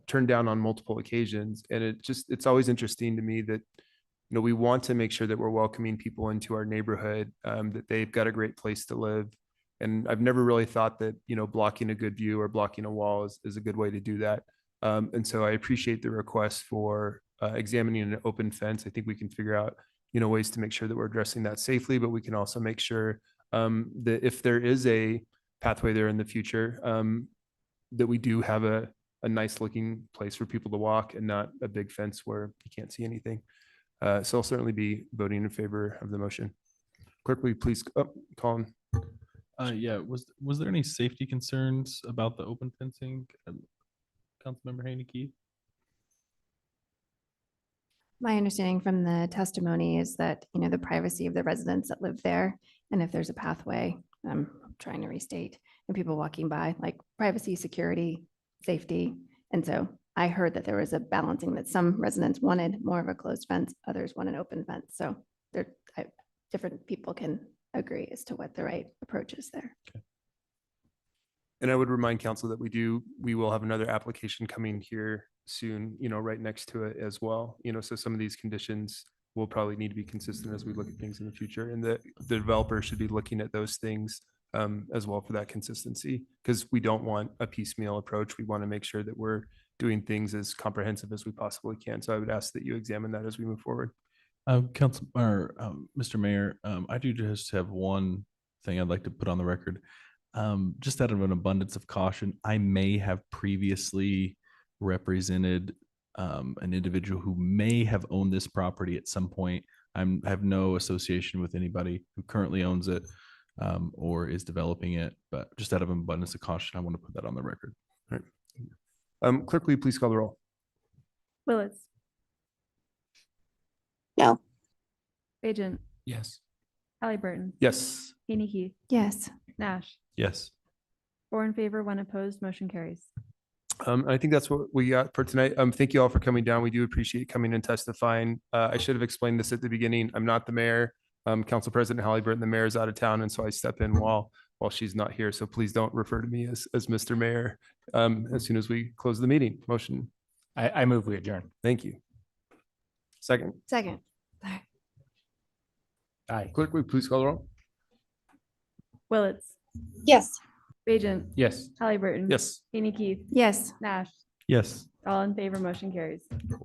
turned down on multiple occasions. And it just, it's always interesting to me that, you know, we want to make sure that we're welcoming people into our neighborhood, um, that they've got a great place to live. And I've never really thought that, you know, blocking a good view or blocking a wall is, is a good way to do that. Um, and so I appreciate the request for, uh, examining an open fence. I think we can figure out, you know, ways to make sure that we're addressing that safely, but we can also make sure, um, that if there is a pathway there in the future, um, that we do have a, a nice looking place for people to walk and not a big fence where you can't see anything. Uh, so I'll certainly be voting in favor of the motion. Clerk, will you please, oh, Colin, Uh, yeah, was, was there any safety concerns about the open fencing? um, Councilmember Haney My understanding from the testimony is that, you know, the privacy of the residents that live there, and if there's a pathway, I'm trying to restate, and people walking by, like privacy, security, safety. And so I heard that there was a balancing that some residents wanted more of a closed fence, others want an open fence. So there, I, different people can agree as to what the right approach is there. and I would remind council that we do, we will have another application coming here soon, you know, right next to it as well. You know, so some of these conditions will probably need to be consistent as we look at things in the future. And the, the developer should be looking at those things um, as well for that consistency, because we don't want a piecemeal approach. We want to make sure that we're doing things as comprehensive as we possibly can. So I would ask that you examine that as we move forward. Um, Council, or, um, Mr. Mayor, um, I do just have one thing I'd like to put on the record. Um, just out of an abundance of caution, I may have previously represented um, an individual who may have owned this property at some point. I'm, I have no association with anybody who currently owns it um, or is developing it, but just out of an abundance of caution, I want to put that on the record. Um, Clerk, will you please call the roll? Willis. No. Bajent, Yes. Hallie Burton, Yes. Haney Yes, Nash, Yes. four in favor, one opposed, motion carries. Um, I think that's what we got for tonight. Um, thank you all for coming down. We do appreciate coming and testifying. Uh, I should have explained this at the beginning. I'm not the mayor. Um, Council President Holly Burton, the mayor is out of town, and so I step in while, while she's not here. So please don't refer to me as, as Mr. Mayor. Um, as soon as we close the meeting, motion. I, I move we adjourn. Thank you. Second, second. Aye. clerk, will you please call the roll? Willis, Yes. Bajent, Yes. Hallie Burton. Yes. Haney Yes. Nash, Yes. all in favor, motion carries.